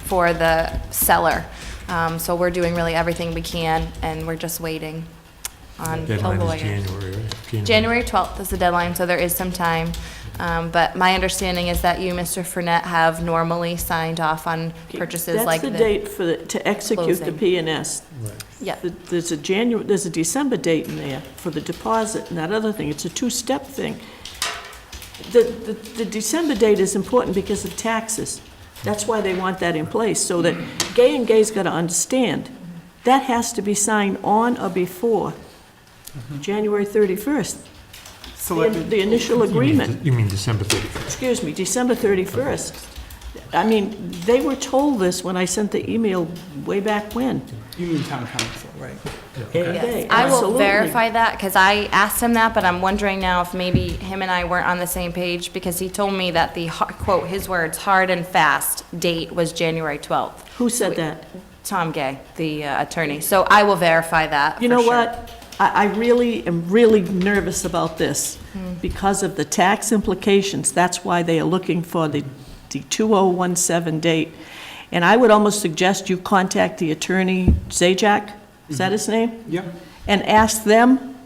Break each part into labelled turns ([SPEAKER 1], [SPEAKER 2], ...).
[SPEAKER 1] for the seller. Um, So we're doing really everything we can, and we're just waiting on a
[SPEAKER 2] Deadline is
[SPEAKER 1] lawyer.
[SPEAKER 2] January, right?
[SPEAKER 1] January 12th is the deadline, so there is some time. Um, But my understanding is that you, Mr. Fournette, have normally signed off on purchases like
[SPEAKER 3] That's the
[SPEAKER 1] this.
[SPEAKER 3] date for, the- to execute the
[SPEAKER 1] closing.
[SPEAKER 3] P and S.
[SPEAKER 2] Right.
[SPEAKER 1] Yeah,
[SPEAKER 3] There's a January, there's a December date in there for the deposit and that other thing. It's a two-step thing. The, the, the December date is important because of taxes. That's why they want that in place, so that Gay and Gay's gotta understand, that has to be signed on or before
[SPEAKER 2] Mm-hmm.
[SPEAKER 3] January thirty-first, the
[SPEAKER 4] Selectman,
[SPEAKER 3] the initial
[SPEAKER 2] You mean
[SPEAKER 3] agreement
[SPEAKER 2] de- You mean December 31st?
[SPEAKER 3] excuse me, December 31st. I mean, they were told this when I sent the email way back when.
[SPEAKER 4] you mean town council, right?
[SPEAKER 3] They-
[SPEAKER 1] Yes, I will
[SPEAKER 3] absolutely.
[SPEAKER 1] verify that, because I asked him that, but I'm wondering now if maybe him and I weren't on the same page, because he told me that the, har- quote, his words, "hard and fast" date was January 12th.
[SPEAKER 3] Who said that?
[SPEAKER 1] Tom Gay, the uh, attorney. So I will verify that.
[SPEAKER 3] You
[SPEAKER 1] for
[SPEAKER 3] know
[SPEAKER 1] sure.
[SPEAKER 3] what? I, I really am really nervous about this
[SPEAKER 1] Hmm.
[SPEAKER 3] because of the tax implications. That's why they are looking for the, the 2017 date. And I would almost suggest you contact the attorney, Zajac, is that his name?
[SPEAKER 4] Yeah,
[SPEAKER 3] and ask them,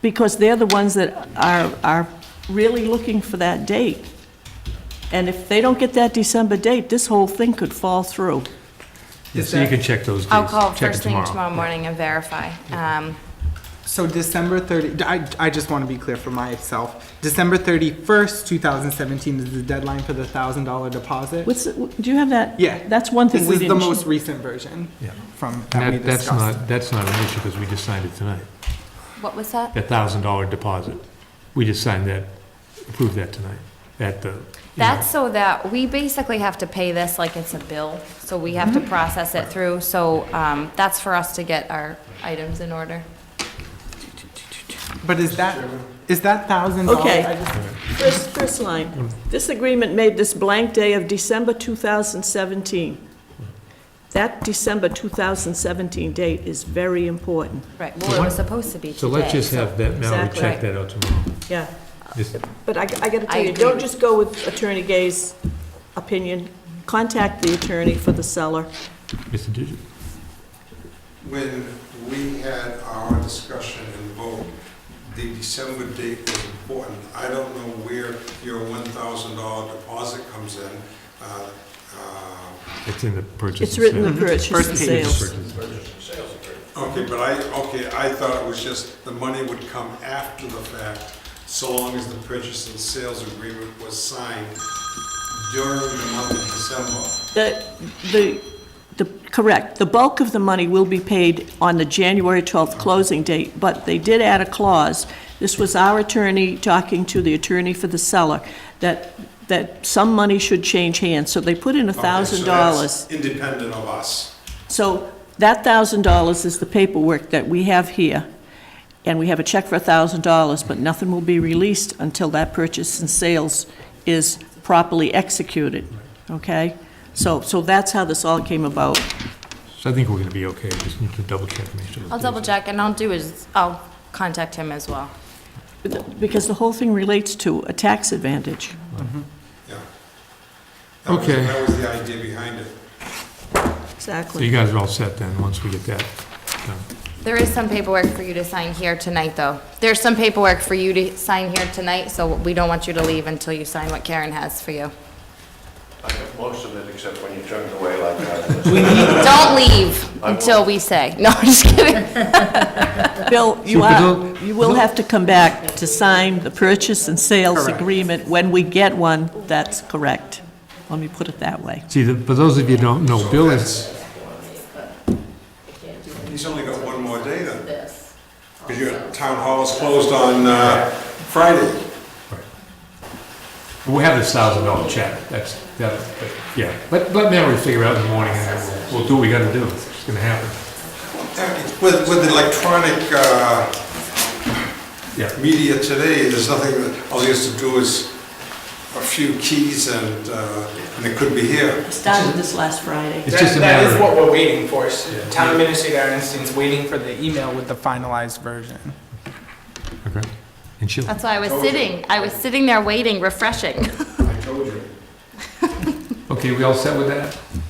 [SPEAKER 3] because they're the ones that are, are really looking for that date. And if they don't get that December date, this whole thing could fall through.
[SPEAKER 4] Is
[SPEAKER 2] So you
[SPEAKER 4] that-
[SPEAKER 2] can check those dates.
[SPEAKER 1] I'll call
[SPEAKER 2] Check it
[SPEAKER 1] first thing tomorrow morning and verify. Um,
[SPEAKER 4] so December 30, I, I just want to be clear for myself. December 31st, 2017 is the deadline for the $1,000 deposit.
[SPEAKER 3] What's, the- do you have that?
[SPEAKER 4] Yeah.
[SPEAKER 3] That's one thing
[SPEAKER 4] This
[SPEAKER 3] we
[SPEAKER 4] is the
[SPEAKER 3] didn't.
[SPEAKER 4] most recent version
[SPEAKER 2] Yeah.
[SPEAKER 4] from,
[SPEAKER 2] And
[SPEAKER 4] that we
[SPEAKER 2] that- That's
[SPEAKER 4] discussed.
[SPEAKER 2] not, that's not an issue because we just signed it tonight.
[SPEAKER 1] What was that?
[SPEAKER 2] That $1,000 deposit. We just signed that, approved that tonight at the. you know,
[SPEAKER 1] That's so that, we basically have to pay this like it's a bill, so we have to
[SPEAKER 2] Mm-hmm.
[SPEAKER 1] process it through. So um, that's for us to get our items in order.
[SPEAKER 4] But is that, is that $1,000?
[SPEAKER 3] Okay.
[SPEAKER 4] I just-
[SPEAKER 3] First, first line, this agreement made this blank day of December 2017. That December 2017 date is very important.
[SPEAKER 1] Right,
[SPEAKER 2] So
[SPEAKER 1] well, it was
[SPEAKER 2] what-
[SPEAKER 1] supposed to be today.
[SPEAKER 2] So let's just have that, Mallory,
[SPEAKER 3] Exactly.
[SPEAKER 2] check that out tomorrow.
[SPEAKER 3] Yeah.
[SPEAKER 2] Just-
[SPEAKER 3] But I, I gotta
[SPEAKER 1] I
[SPEAKER 3] tell you,
[SPEAKER 1] agree.
[SPEAKER 3] don't just go with Attorney Gay's opinion. Contact the attorney for the seller.
[SPEAKER 2] Mr. Digit.
[SPEAKER 5] When we had our discussion and vote, the December date was important. I don't know where your $1,000 deposit comes in. Uh, uh,
[SPEAKER 2] It's in the purchase.
[SPEAKER 3] It's
[SPEAKER 2] and
[SPEAKER 3] written
[SPEAKER 2] sale.
[SPEAKER 3] the purchase
[SPEAKER 4] First
[SPEAKER 3] and
[SPEAKER 4] page.
[SPEAKER 3] sales.
[SPEAKER 5] Okay, but I, okay, I thought it was just the money would come after the fact, so long as the purchase and sales agreement was signed during the month of December.
[SPEAKER 3] The, the, the, correct, the bulk of the money will be paid on the January 12th closing date, but they did add a clause. This was our attorney talking to the attorney for the seller, that, that some money should change hands, so they put in a
[SPEAKER 5] Okay, so
[SPEAKER 3] thousand
[SPEAKER 5] Oh, that's
[SPEAKER 3] dollars.
[SPEAKER 5] Independent of us.
[SPEAKER 3] So that thousand dollars is the paperwork that we have here, and we have a check for a thousand dollars, but nothing will be released until that purchase and sales is properly executed, okay? So, so that's how this all came about.
[SPEAKER 2] So I think we're going to be okay. Just need to double check. make sure those
[SPEAKER 1] I'll
[SPEAKER 2] dates-
[SPEAKER 1] double check, and I'll do is, I'll contact him as well.
[SPEAKER 3] Because the whole thing relates to a tax advantage.
[SPEAKER 5] Yeah. That was-
[SPEAKER 2] Okay.
[SPEAKER 5] That was the idea behind it.
[SPEAKER 2] So
[SPEAKER 3] Exactly.
[SPEAKER 2] you guys are all set then, once we get that done.
[SPEAKER 1] There is some paperwork for you to sign here tonight, though. There's some paperwork for you to sign here tonight, so we don't want you to leave until you sign what Karen has for you.
[SPEAKER 6] I got most of it except when you turned away like that.
[SPEAKER 1] Don't leave until we say. No, I'm just kidding.
[SPEAKER 3] Bill, you
[SPEAKER 2] So
[SPEAKER 3] are,
[SPEAKER 2] they'll-
[SPEAKER 3] you will have to come back to sign the purchase and sales
[SPEAKER 4] Correct.
[SPEAKER 3] agreement when we get one, that's correct. Let me put it that way.
[SPEAKER 2] See, the- for those of you who don't know, Bill is,
[SPEAKER 5] He's only got one more day then. Because your town hall is closed on uh, Friday.
[SPEAKER 2] we'll have this thousand dollar check, that's, that, but, yeah. Let, let Mallory figure out in the morning, and then we'll, we'll do what we got to do, it's going to happen.
[SPEAKER 5] With, with electronic uh,
[SPEAKER 2] Yeah,
[SPEAKER 5] media today, there's nothing, that all you have to do is a few keys and, uh, and it could be here.
[SPEAKER 3] Started this last Friday.
[SPEAKER 2] it's just a
[SPEAKER 4] That- That
[SPEAKER 2] matter
[SPEAKER 4] is
[SPEAKER 2] of,
[SPEAKER 4] what we're waiting for. Town administrator Ernstein's waiting for the email with the finalized version.
[SPEAKER 2] okay, and she'll,
[SPEAKER 1] That's why I was sitting, I was sitting there waiting, refreshing.
[SPEAKER 5] I told you.
[SPEAKER 2] Okay, we all set with that?